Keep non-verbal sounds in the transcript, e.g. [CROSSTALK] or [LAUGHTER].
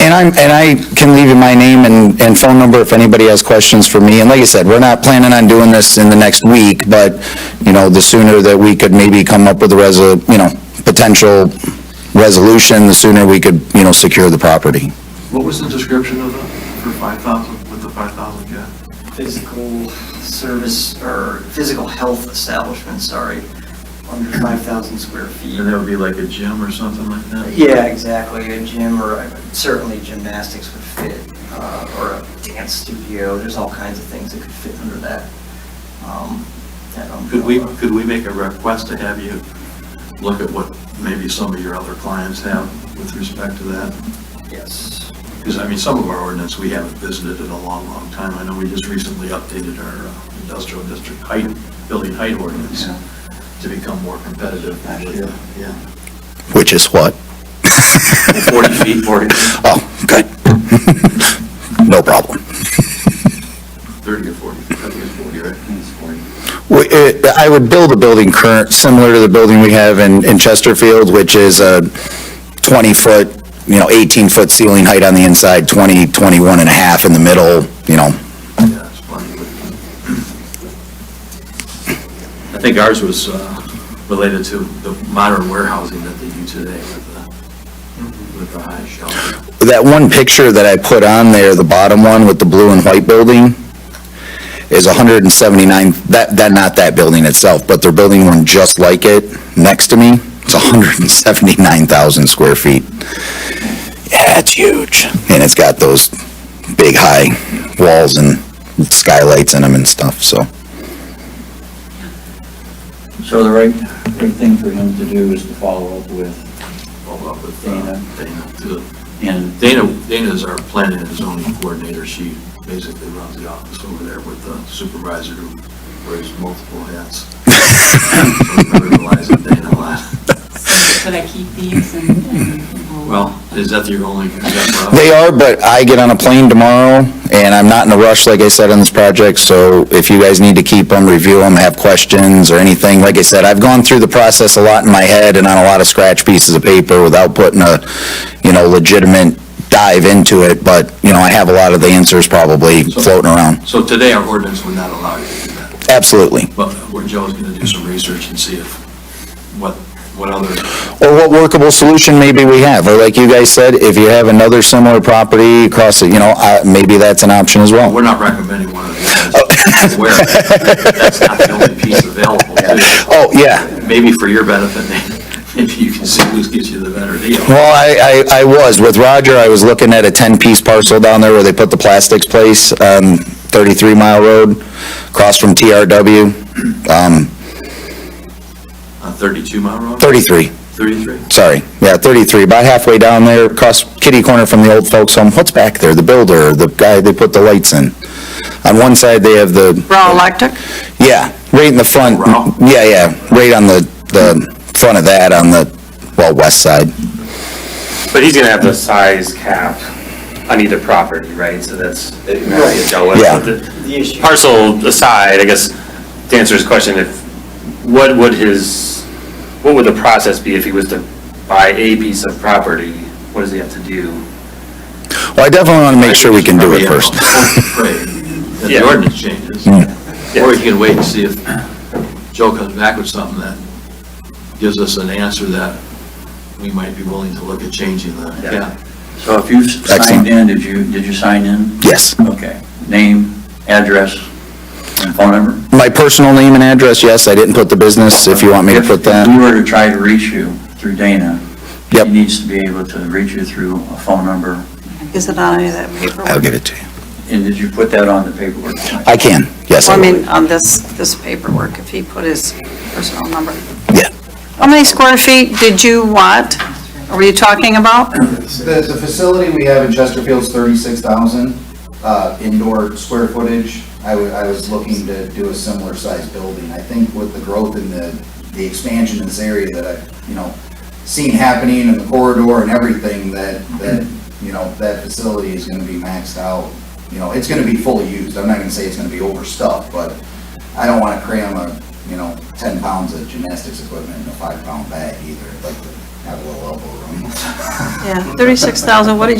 And I'm, and I can leave you my name and, and phone number if anybody has questions for me. And like I said, we're not planning on doing this in the next week, but, you know, the sooner that we could maybe come up with a resol, you know, potential resolution, the sooner we could, you know, secure the property. What was the description of the, for five thousand, with the five thousand cap? physical service or physical health establishment, sorry, under 5,000 square And that feet. would be like a gym or something like that? Yeah, exactly, a gym or uh, certainly gymnastics would fit, uh, or a dance studio, there's all kinds of things that could fit under that. um, that Could we, umbrella. could we make a request to have you look at what maybe some of your other clients have with respect to that? Yes. Because, I mean, some of our ordinance, we haven't visited in a long, long time. I know we just recently updated our uh, industrial district height, building height ordinance Yeah. to become more competitive. Actually, yeah. Yeah. Which is what? 40 feet, 40, Oh, good. [LAUGHS] No problem. 30 or 40, I think it's 40, right? It's 40. We- it- I would build a building current, similar to the building we have in, in Chesterfield, which is a 20-foot, you know, 18-foot ceiling height on the inside, 20, 21 and a half in the middle, you know. Yeah, it's plenty. [CLEARS THROAT] I think ours was uh, related to the modern warehousing that they do today with the, with the high shelf. That one picture that I put on there, the bottom one with the blue and white building, is 179, that, that, not that building itself, but they're building one just like it next to me. It's 179,000 square feet. Yeah, it's huge. And it's got those big high walls and skylights in them and stuff, so. So the right, right thing for him to do is to follow up with, Hold up with Dana. uh, Dana. too. and Dana, Dana is our planning and zoning coordinator. She basically runs the office over there with the supervisor who wears multiple hats. [LAUGHS] So I relies on Dana a lot. Should I keep these and, and we'll- Well, is that your only, is that Rob? They are, but I get on a plane tomorrow, and I'm not in a rush, like I said, on this project, so if you guys need to keep them, review them, have questions or anything, like I said, I've gone through the process a lot in my head and on a lot of scratch pieces of paper without putting a, you know, legitimate dive into it, but, you know, I have a lot of the answers probably floating around. So today our ordinance would not allow you to do that. Absolutely. But where Joe's gonna do some research and see if, what, what other, Or what workable solution maybe we have, or like you guys said, if you have another similar property across, the- you know, uh, maybe that's an option as well. we're not recommending one of the others. Where, that's not the only piece available. too. Oh, yeah. Maybe for your benefit, [LAUGHS] maybe you can see who gives you the better deal. Well, I, I, I was, with Roger, I was looking at a 10-piece parcel down there where they put the plastics place, um, 33 Mile Road, across from TRW, um, On thirty-two mile road, 33, thirty-three? sorry, yeah, 33, about halfway down there, across kitty corner from the old folks home, what's back there, the builder, the guy they put the lights in? On one side, they have the, Raw electric? yeah, right in the front, Ralph? yeah, yeah, right on the, the front of that, on the, well, west side. But he's gonna have the size cap on either property, right? So that's, it might be a John West. Yeah. The The issue, Parcel aside, I guess, to answer his question, if, what would his, what would the process be if he was to buy a piece of property? What does he have to do? Well, I definitely want to make sure we can do it [LAUGHS] first. Hmm. Pray that the Yeah. ordinance changes. Or you can wait and see if Joe comes back with something that gives us an answer that we might be willing to look at changing the, Yeah. yeah. so if you Excellent. signed in, did you, did you sign in? Yes. Okay. Name, address, and phone number? My personal name and address, yes, I didn't put the business, if you want me to put If that. we were to try to reach you through Dana, he Yep. needs to be able to reach you through a phone number. Is it on any of that paperwork? it to you. And did you put that on the paperwork? I can, yes, Well, I I will. mean, on this, this paperwork, if he put his personal number. Yeah. How many square feet did you want? Were you talking about? The, the facility we have in Chesterfield's thirty-six thousand, uh, indoor square footage. I wa- I was looking to do a similar size building. I think with the growth in the, the expansion in this area that I've, you know, seen happening in the corridor and everything, that, that, you know, that facility is gonna be maxed out. You know, it's gonna be fully used. I'm not gonna say it's gonna be overstuffed, but I don't wanna cram a, you know, ten pounds of gymnastics equipment in a five-pound bag either. I'd like to have a little elbow room. [LAUGHS] Yeah, 36,000, what did you?